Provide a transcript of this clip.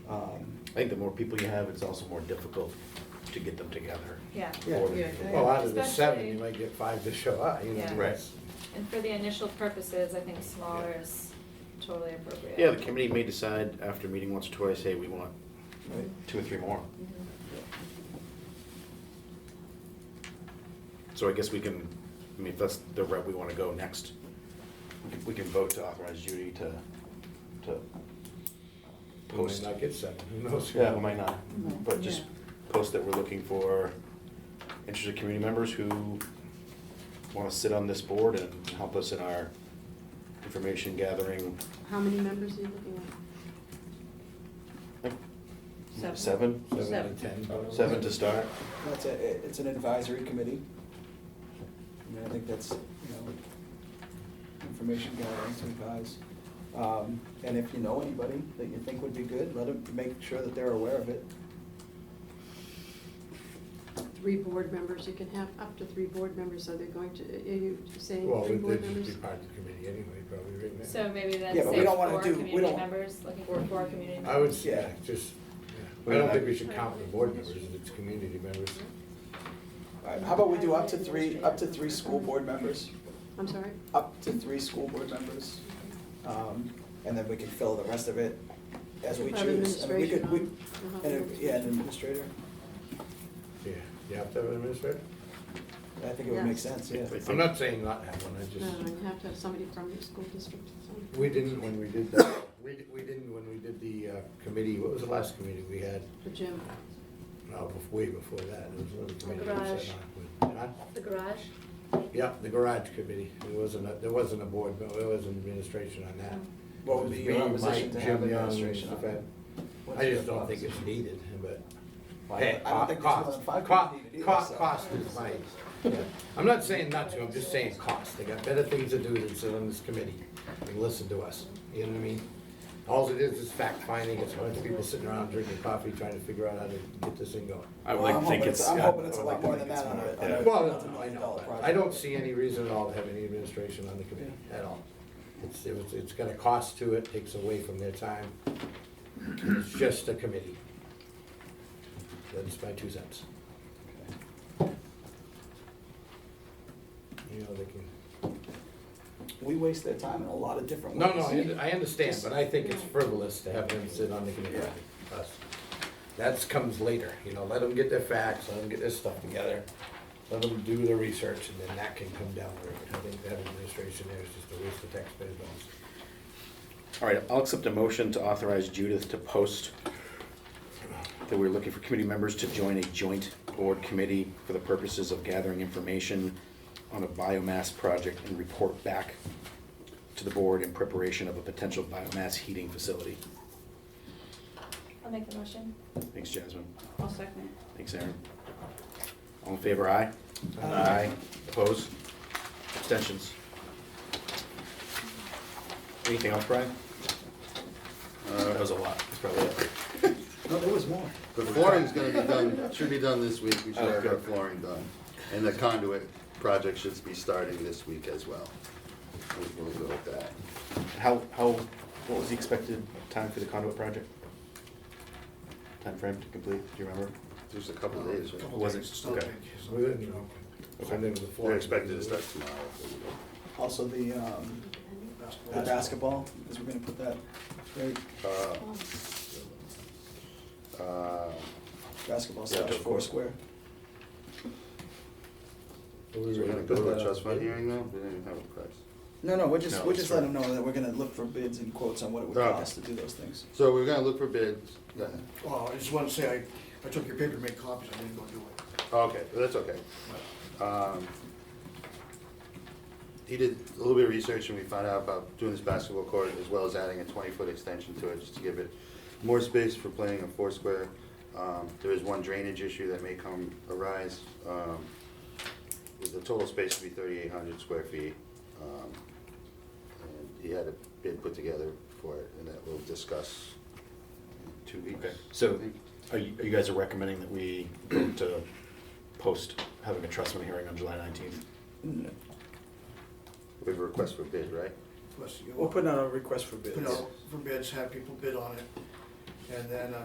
Um, I think the more people you have, it's also more difficult to get them together. Yeah. Yeah, Or- well, out of the seven, Especially- you might get five to show up, you know. Yeah. Right. And for the initial purposes, I think smaller is totally appropriate. Yeah, the committee may decide after meeting once or twice, hey, we want two or three more. Mhm. So I guess we can, I mean, if that's the route we want to go next, we can- we can vote to authorize Judy to, to We might post. not get seven, who knows? Yeah, we might not, Mm-hmm. Mhm. but just post that we're looking for interested community members who want to sit on this board and help us in our information gathering. How many members are you looking Seven. Seven? Seven to ten. but- Seven to start? That's a, it's an advisory committee. I mean, I think that's, you know, information gathering to advise. Um, And if you know anybody that you think would be good, let them, make sure that they're aware of it. at? Three board members, you can have up to three board members, so they're going to, are you saying Well, three they'd board just be members? part of the committee anyway, probably, right now. So maybe then Yeah, but we say don't wanna four do- we community don't- members, looking for four community members. I would, s- yeah, just, yeah. I don't think we should count the board members, it's community members. Mm-hmm. All right, How about we do up to three, up to three school board members? I'm sorry? Uh, Up to three school board members. Um, And then we can fill the rest of it as we We'll have choose. I mean, we could- we- administration on- we'll have and, Yeah, an administrator. Yeah, you have to have an administrator? I think it would make Yes. sense, yeah. I'm not saying not have one, I No, just, you have to have somebody from your school district. so- we didn't when we did that, we, di- we didn't when we did the uh, committee, what was the last committee we had? The gym. No, bef- way before that, it was another committee. we garage. sat on with- huh? The garage? Yeah, the garage committee, there wasn't, a- there wasn't a board, no, there wasn't administration on that. Mm. What would be your It was me, opposition to Mike, have Jim Young, administration on Stefan. it? What's I your just don't think opposition? it's needed, but. Well, I Hey, don't- I don't think there's more cost, than five cost, people needed cost, either, so. cost is my, I'm not saying not to, I'm just saying cost, they got better things to do than sit on this committee and listen to us, you know what I mean? All it is is fact finding, it's a bunch of people sitting around drinking coffee, trying to figure out how to get this thing going. I would Well, like I'm to think hoping it's. it's- I'm I hoping it's a would lot like to more think than it's that on more- it. yeah. I know. Well, no, I know, but I don't see any reason at all to have any administration on the committee at all. It's, it's, it's got a cost to it, takes away from their time. It's just a committee. That's my two cents. You know, they can, We waste their time in a lot of different ways. no, no, I, I understand, but I think it's frivolous to have them sit on the committee, us. That comes later, you know, let them get their facts, let them get their stuff together, let them do their research, and then that can come down the road. I think that administration there is just a waste of taxpayers' dollars. All right, I'll accept a motion to authorize Judith to post that we're looking for committee members to join a joint board committee for the purposes of gathering information on a biomass project and report back to the board in preparation of a potential biomass heating facility. I'll make the motion. Thanks, Jasmine. I'll second. Thanks, Aaron. All in favor, aye? Opposed? Abstentions? Anything else, Brian? Uh, that was a lot. That's probably it. No, there was more. The flooring's gonna be done, should be done this week, we should Oh, have our good. flooring done. And the conduit project should be starting this week as well. We'll we'll go with that. How, how, what was the expected time for the conduit project? Time frame to complete, do you remember? There's a couple days, right? Was it, okay. So we didn't, you know, send them to the floor. They're expected to start tomorrow. Also, the, um, the basketball, because we're gonna put that, very Uh, uh, basketball Yeah, slash to four square. We were So we're gonna put go to that the on trust fund the- hearing now? We didn't even have a price. No, no, we're just, No, we're it's just letting for- them know that we're gonna look for bids and quotes on what it would Okay. cost to do those things. So we're gonna look for bids. Go ahead. Well, I just want to say, I, I took your paper to make copies, I didn't go do it. Okay, that's okay. Um, He did a little bit of research and we found out about doing this basketball court as well as adding a twenty-foot extension to it just to give it more space for playing in foursquare. Um, There is one drainage issue that may come arise. Um, The total space would be thirty-eight hundred square feet. Um, and He had a bid put together for it and that we'll discuss in two weeks. Okay. So I think. are you, are you guys are recommending that we vote to post having a trust fund hearing on July nineteenth? Mm, We have a request for bid, right? Plus, you We'll put out a request for bids. put out for bids, have people bid on it, and then, uh,